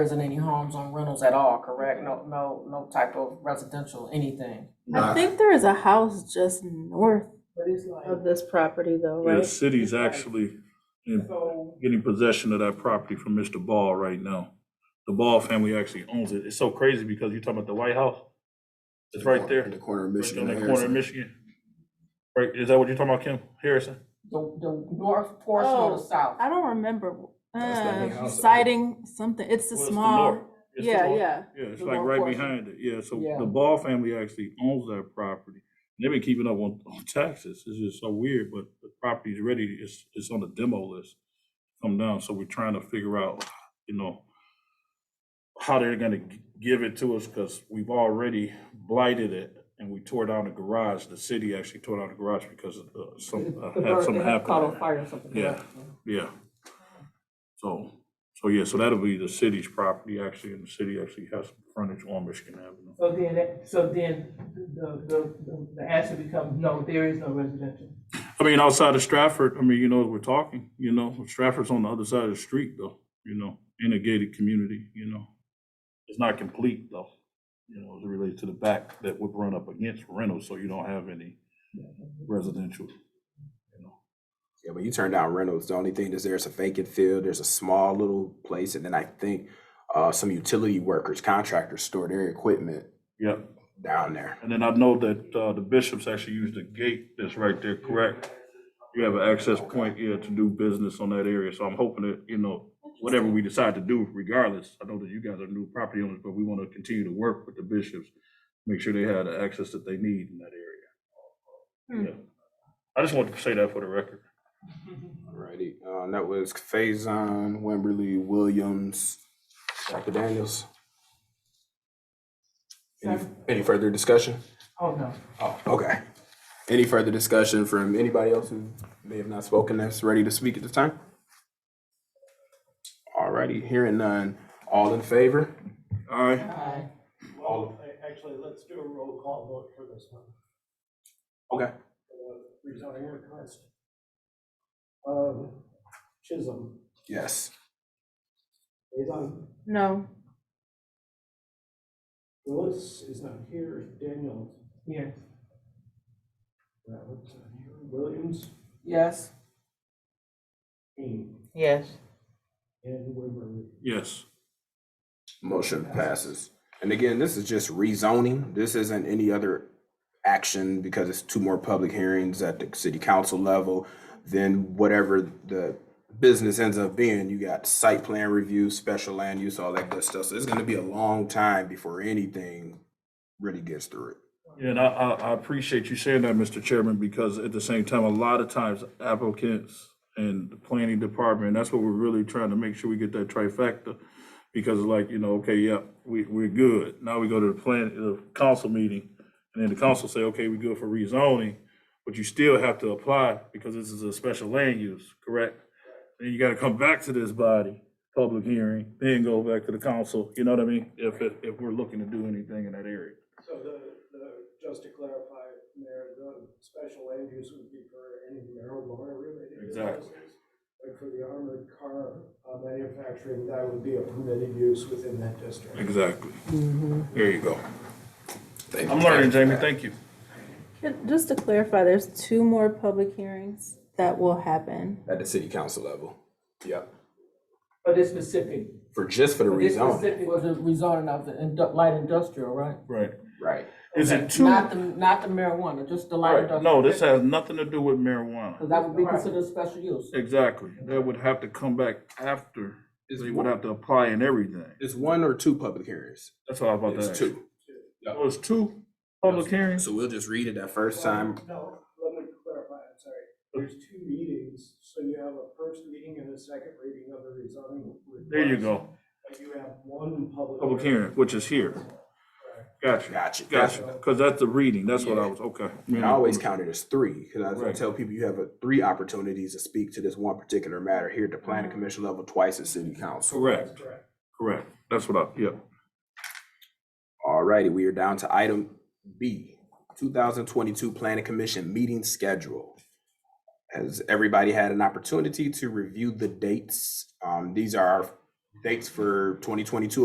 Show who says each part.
Speaker 1: isn't any homes on rentals at all, correct? No, no, no type of residential, anything.
Speaker 2: I
Speaker 3: Nah.
Speaker 2: think there is a house just north
Speaker 1: But it's like.
Speaker 2: of this property though,
Speaker 4: The
Speaker 2: right?
Speaker 4: city's actually in-
Speaker 1: So,
Speaker 4: getting possession of that property from Mr. Ball right now. The Ball family actually owns it. It's so crazy because you're talking about the White House. It's right there,
Speaker 3: In the
Speaker 4: right
Speaker 3: corner of
Speaker 4: there
Speaker 3: Michigan.
Speaker 4: in
Speaker 3: and
Speaker 4: the corner of
Speaker 3: Harrison.
Speaker 4: Michigan. Right, is that what you're talking about, Kim? Harrison?
Speaker 1: the, the north portion or
Speaker 2: Oh,
Speaker 1: the south?
Speaker 2: I don't remember,
Speaker 3: That's the big
Speaker 2: uh,
Speaker 3: house.
Speaker 2: citing something, it's the
Speaker 4: Well, it's the
Speaker 2: small,
Speaker 4: north. It's the
Speaker 2: yeah,
Speaker 4: north.
Speaker 2: yeah.
Speaker 4: Yeah, it's
Speaker 1: The
Speaker 4: like
Speaker 1: Ball
Speaker 4: right
Speaker 1: portion.
Speaker 4: behind it, yeah, so
Speaker 1: Yeah.
Speaker 4: the Ball family actually owns that property. They've been keeping up on, on taxes, it's just so weird, but the property's ready, it's, it's on the demo list. Come down, so we're trying to figure out, you know, how they're gonna g- give it to us, cause we've already blighted it, and we tore down the garage, the city actually tore down the garage because of, uh, some,
Speaker 1: The
Speaker 4: uh, had
Speaker 1: bird
Speaker 4: something
Speaker 1: that had Caught on
Speaker 4: happen.
Speaker 1: fire or something.
Speaker 4: Yeah. Yeah. So, so yeah, so that'll be the city's property actually, and the city actually has some frontage on Michigan Avenue.
Speaker 5: So then, that- so then, the, the, the- the answer becomes, no, there is no residential.
Speaker 4: I mean, outside of Stratford, I mean, you know, we're talking, you know, Stratford's on the other side of the street though, you know, in a gated community, you know. It's not complete though, you know, as it relates to the back that would run up against rental, so you don't have any residential. you know.
Speaker 3: Yeah, but you turn down Reynolds. The only thing is there's a vacant field, there's a small little place, and then I think uh, some utility workers, contractors store their equipment
Speaker 4: Yep.
Speaker 3: down there.
Speaker 4: And then I know that uh, the bishops actually use the gate that's right there, correct? You have an access point, yeah, to do business on that area, so I'm hoping that, you know, whatever we decide to do regardless, I know that you guys are new property owners, but we want to continue to work with the bishops, make sure they have the access that they need in that area. Yeah. I just wanted to say that for the record.
Speaker 3: Alrighty, uh, and that was Faison, Wimberly, Williams, Dr. Daniels. Any, any further discussion?
Speaker 5: Oh, no.
Speaker 3: Oh, okay. Any further discussion from anybody else who may have not spoken that's ready to speak at this time? Alrighty, hearing none. All in favor?
Speaker 4: All right,
Speaker 6: Well, a- actually, let's do a roll call vote for this one.
Speaker 3: Okay.
Speaker 6: Uh, Rezoning request. Um, Chisholm,
Speaker 3: Yes.
Speaker 6: Faison,
Speaker 2: No,
Speaker 6: Willis is not here, Daniel,
Speaker 5: Yes.
Speaker 6: Robert's not here, Williams,
Speaker 1: Yes?
Speaker 6: Kane,
Speaker 5: Yes.
Speaker 6: and Wimberly.
Speaker 4: yes.
Speaker 3: Motion passes. And again, this is just rezoning. This isn't any other action because it's two more public hearings at the city council level. Then whatever the business ends up being, you got site plan review, special land use, all that good stuff. So it's gonna be a long time before anything really gets through it.
Speaker 4: Yeah, And I, I, I appreciate you saying that, Mr. Chairman, because at the same time, a lot of times applicants and the planning department, that's what we're really trying to make sure we get that trifecta. Because like, you know, okay, yep, we, we're good. Now we go to the plan, the council meeting, and then the council say, okay, we're good for rezoning, but you still have to apply because this is a special land use, correct? Then you gotta come back to this body, public hearing, then go back to the council, you know what I mean? If, if, if we're looking to do anything in that area.
Speaker 6: So the, the, just to clarify, Mayor, the special land use would be for any marijuana related.
Speaker 4: Exactly.
Speaker 6: businesses. But for the armored car uh, manufacturing, that would be a permitted use within that district.
Speaker 4: Exactly.
Speaker 1: Mm-hmm.
Speaker 4: There you go.
Speaker 3: Thank you.
Speaker 4: I'm learning, Jamie. Thank you.
Speaker 2: Ju- just to clarify, there's two more public hearings that will happen.
Speaker 3: At the city council level. Yep.
Speaker 1: But it's specific,
Speaker 3: For just for the
Speaker 1: it's
Speaker 3: rezoning.
Speaker 1: specific was Oh. the rezoning of the indu- light industrial, right?
Speaker 4: Right.
Speaker 3: Right.
Speaker 4: Is it two?
Speaker 1: Not the, not the marijuana, just the light
Speaker 4: Right.
Speaker 1: industrial.
Speaker 4: No, this has nothing to do with marijuana.
Speaker 1: Because that would be considered special use.
Speaker 4: Exactly. That would have to come back after.
Speaker 3: It's
Speaker 4: They would
Speaker 3: one,
Speaker 4: have to apply and everything.
Speaker 3: it's one or two public hearings.
Speaker 4: That's all I was about to ask.
Speaker 3: It's two.
Speaker 4: Oh, it's two public hearings?
Speaker 3: So we'll just read it that first time.
Speaker 6: No, let me clarify, I'm sorry. There's two meetings, so you have a first meeting and a second reading of the rezoning. request,
Speaker 4: There you go.
Speaker 6: But you have one public.
Speaker 4: Public hearing, which is here. Gotcha.
Speaker 3: Gotcha.
Speaker 4: Gotcha. Because that's the reading. That's what I was, okay.
Speaker 3: And I always count it as three, because I
Speaker 4: Right.
Speaker 3: tell people you have uh, three opportunities to speak to this one particular matter here at the planning
Speaker 4: Mm-hmm.
Speaker 3: commission level, twice at city council.
Speaker 4: Correct. Correct. That's what I, yep.
Speaker 3: Alrighty, we are down to item B, two thousand twenty-two planning commission meeting schedule. Has everybody had an opportunity to review the dates? Um, these are our dates for twenty twenty-two